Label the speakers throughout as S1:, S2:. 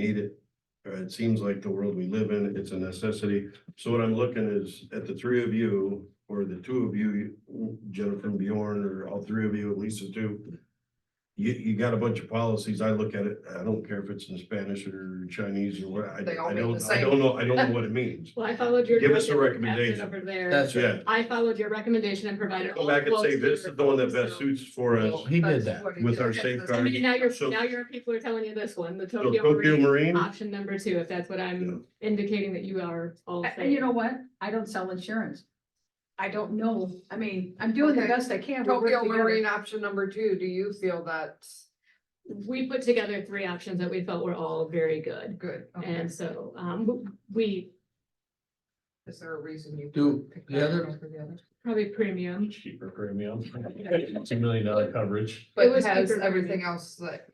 S1: need it. Uh, it seems like the world we live in, it's a necessity. So what I'm looking is at the three of you, or the two of you, Jennifer and Bjorn, or all three of you, at least the two. You, you got a bunch of policies. I look at it, I don't care if it's in Spanish or Chinese or what, I,
S2: They all
S1: I
S2: mean
S1: don't,
S2: the
S1: I don't know, I don't know what it means.
S3: Well, I followed your.
S1: Give us a
S3: direction and passed it
S1: recommendation.
S3: Over there.
S4: That's
S1: Yeah,
S4: right.
S3: I followed your recommendation and provided.
S1: go
S3: all
S1: back and
S3: quotes
S1: say
S3: to
S1: this
S3: your
S1: is the one that
S3: proposal.
S1: best suits for us
S4: He did
S2: That's
S4: that.
S2: what he
S1: with
S2: did.
S1: our
S2: That's the-
S3: I
S1: safeguard.
S3: mean, now you're,
S1: So-
S3: now your people are telling you this one, the
S1: So
S3: Tokyo
S1: Tokyo
S3: Marine,
S1: Marine,
S3: option number two, if that's what I'm indicating that you are all
S5: I- And you
S3: saying.
S5: know what? I don't sell insurance. I don't know. I mean, I'm doing the
S2: Okay.
S5: best I can. We work
S2: Tokyo
S5: together.
S2: Marine option number two, do you feel that's
S3: We put together three options that we felt were all very good.
S2: good? Okay.
S3: And so, um, we,
S2: Is there a reason you?
S4: Do
S2: picked
S4: the
S2: that
S4: other-
S2: one over the other?
S3: probably premium.
S6: cheaper premium, two million dollar coverage.
S2: But
S3: was
S2: has
S3: paper
S2: everything
S3: premium.
S2: else that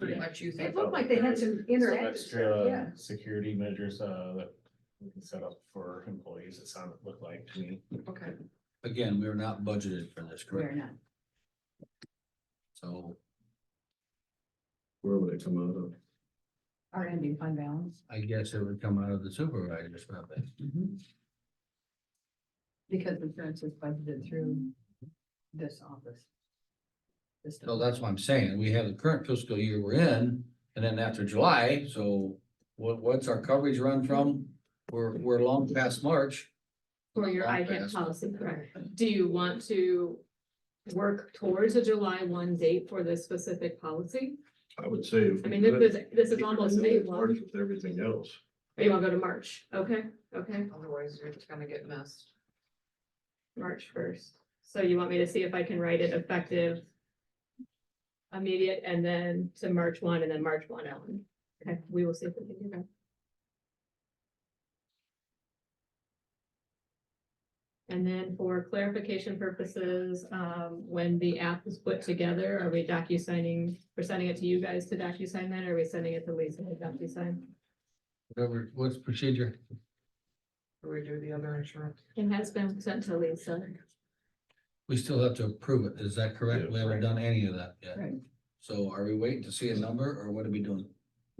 S2: pretty much you
S5: It
S2: think?
S5: looked like they had some
S6: Some
S5: interactive, stuff, yeah.
S6: extra security measures uh that we can set up for employees, it sounded, looked like to me.
S2: Okay,
S4: Again, we are not budgeted for this,
S5: We're
S4: correct?
S5: not.
S4: So
S1: where would it come out of?
S5: Our ending fund balance. Mm-hmm.
S4: I guess it would come out of the supervisor's budget.
S5: Because insurance is budgeted through this office. This
S4: So that's what I'm saying. We have the current fiscal year we're in, and then after July, so what, what's our coverage run from? We're, we're long past March.
S3: For your
S4: Long
S3: ICAP
S4: past.
S3: policy, correct? Do you want to work towards a July one date for this specific policy?
S1: I would say. if
S3: I
S1: we
S3: mean, this
S1: could,
S3: is, this is almost day one.
S1: With everything else.
S3: Or you wanna go to March? Okay, okay,
S2: otherwise you're just gonna get missed.
S3: March first. So you want me to see if I can write it effective immediate and then to March one and then March one Ellen. Okay, we will see if we can do that. And then for clarification purposes, um, when the app is put together, are we docu-signing, we're sending it to you guys to docu-sign that? or Are we sending it to Lisa to docu-sign?
S4: Whatever, what's procedure?
S2: Do we do the other insurance?
S3: It has been sent to Lisa.
S4: We still have to approve it. Is that correct?
S1: Yeah.
S4: We haven't done any of that yet.
S5: Right.
S4: So are we waiting to see a number or what are we doing?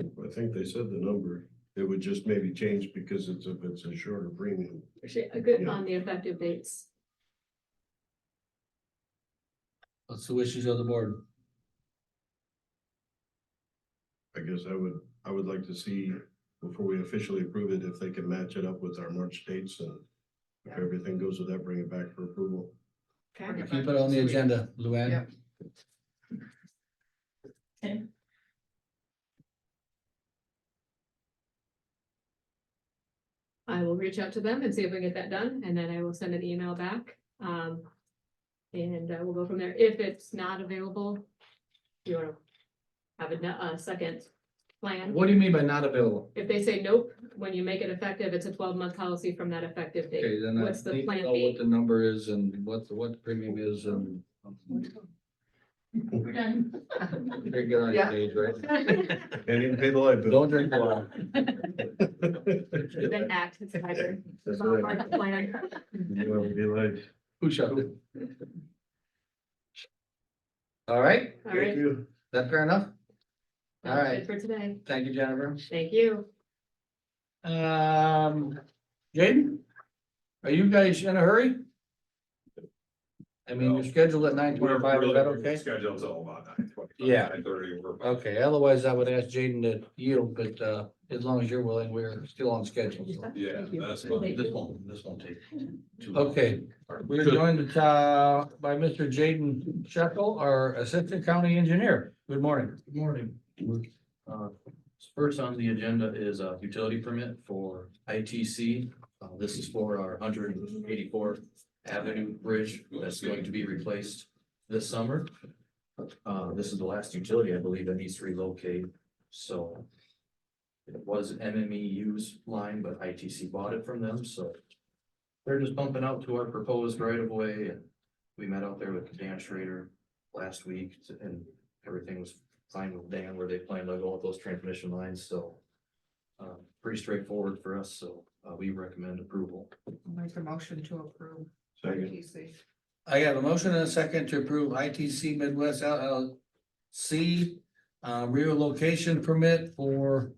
S1: I think they said the number, it would just maybe change because it's, if it's a shorter premium.
S3: Actually, a good
S1: Yeah.
S3: on the effective dates.
S4: What's the wishes of the board?
S1: I guess I would, I would like to see before we officially approve it, if they can match it up with our March dates and if
S2: Yeah.
S1: everything goes with that, bring it back for approval.
S3: Okay.
S4: Keep it on the agenda, Luann.
S2: Yep.
S3: I will reach out to them and see if we can get that done, and then I will send an email back. Um, and uh, we'll go from there. If it's not available, you wanna have a, no- a second plan?
S7: What do you mean by not available?
S3: If they say nope, when you make it effective, it's a twelve-month policy from that effective
S4: Okay,
S3: date.
S4: then I
S3: What's the
S4: need to
S3: plan
S4: know what
S3: B?
S4: the number is and what, the- what the premium is and.
S5: We're done.
S4: Very good on
S2: Yeah.
S4: your page, right?
S1: And even pay the light bill.
S4: Don't drink water.
S3: Then act, it's either.
S1: That's
S3: Well,
S1: right.
S3: like the plan.
S1: You know, be like,
S4: Who shut it? All right,
S3: All
S1: Thank
S3: right.
S1: you.
S4: that fair enough? All
S3: that's it
S4: right.
S3: For today.
S4: Thank you, Jennifer.
S3: Thank you.
S4: Um, Jaden? Are you guys in a hurry? I mean, you're scheduled at nine twenty-five, is that okay?
S6: Schedule's all about nine twenty.
S4: Yeah.
S6: Nine thirty, we're.
S4: Okay, otherwise I would ask Jaden to yield, but, uh, as long as you're willing, we're still on schedule, so.
S6: Yeah, that's.
S4: won't, this won't take too Okay, we're joined uh, by Mr. Jaden Shekel, our Assistant County Engineer. Good morning.
S7: Good morning. Uh, First on the agenda is a utility permit for ITC. Uh, This is for our hundred and eighty-fourth Avenue Bridge that's going to be replaced this summer. Uh, This is the last utility, I believe, that needs to relocate, so it was MMEU's line, but ITC bought it from them, so they're just bumping out to our proposed right-of-way. and We met out there with Dan Schrader last week and everything was fine with Dan where they plan to go with those transmission lines, so. Uh, pretty straightforward for us, so, uh, we recommend approval.
S2: Make a motion to approve.
S1: Second.
S2: PC.
S4: I have a motion and a second to approve ITC Midwest LLC uh, relocation permit for